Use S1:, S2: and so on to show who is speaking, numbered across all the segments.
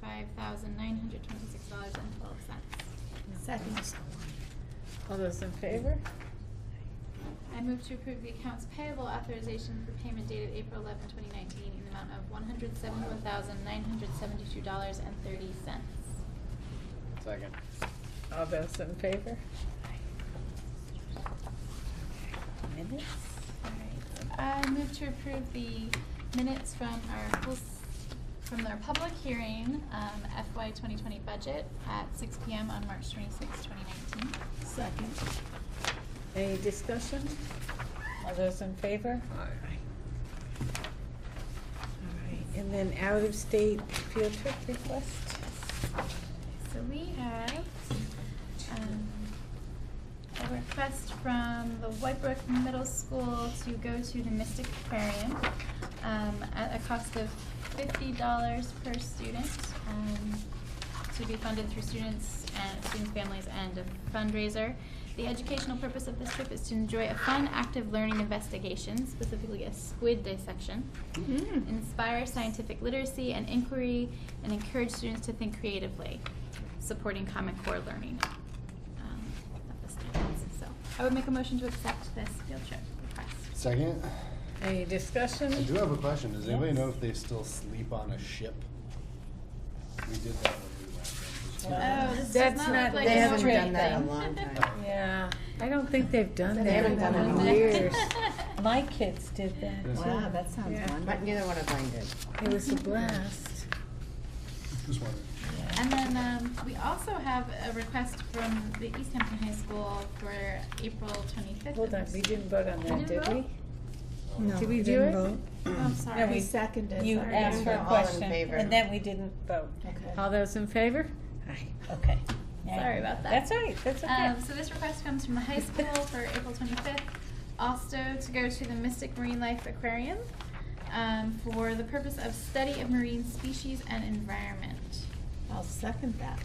S1: five thousand nine hundred twenty-six dollars and twelve cents.
S2: Second. All those in favor?
S1: I move to approve the accounts payable authorization for payment dated April 11, 2019, in the amount of one hundred seventy-one thousand nine hundred seventy-two dollars and thirty cents.
S3: Second.
S2: All those in favor? Minutes?
S1: Alright, I move to approve the minutes from our, full s- from their public hearing, um, FY 2020 budget at 6 PM on March 26, 2019.
S2: Second. Any discussion? All those in favor? All right, and then out-of-state field trip request?
S1: So we have um, a request from the Whitebrook Middle School to go to the Mystic Aquarium um, at a cost of fifty dollars per student um, to be funded through students and students' families and a fundraiser. The educational purpose of this trip is to enjoy a fun, active learning investigation, specifically a squid dissection inspire scientific literacy and inquiry, and encourage students to think creatively, supporting Common Core learning um, of the students. So I would make a motion to accept this field trip request.
S3: Second.
S2: Any discussion?
S3: I do have a question. Does anybody know
S2: Yes.
S3: if they still sleep on a ship? We did that when we went.
S2: Uh,
S1: Oh, this does
S2: That's
S1: not
S2: not-
S1: look like
S2: they
S1: a
S2: haven't
S1: Norway
S2: done that
S4: in a
S1: thing.
S4: long time.
S2: Yeah, I don't think they've done that.
S4: They haven't done it in
S2: in
S4: years.
S2: My kids did that.
S3: Yes.
S2: too.
S4: Wow, that sounds
S2: Yeah.
S4: wonderful. But neither one of mine did.
S2: It was a blast.
S3: Just wondering.
S1: And then um, we also have a request from the East Hampton High School for April 25th.
S2: Hold on, we didn't vote on that,
S1: We
S2: did
S1: didn't
S2: we?
S1: vote?
S5: No,
S2: Did we
S5: we
S2: do
S5: didn't
S2: it?
S5: vote.
S1: Oh, I'm sorry.
S2: No, we
S5: Seconded.
S2: You
S1: Sorry.
S2: asked for a
S4: All in
S2: question,
S4: favor.
S2: and then we didn't vote.
S4: Okay.
S2: All those in favor? Aye. Okay.
S1: Sorry about that.
S2: That's all right, that's okay.
S1: Um, so this request comes from the high school for April 25th, also to go to the Mystic Marine Life Aquarium um, for the purpose of study of marine species and environment.
S5: I'll second that.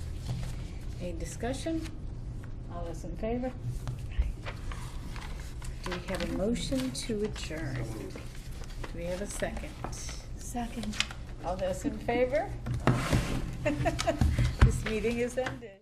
S2: Any discussion? All those in favor? Do we have a motion to adjourn? Do we have a second?
S5: Second.
S2: All those in favor? This meeting is ended.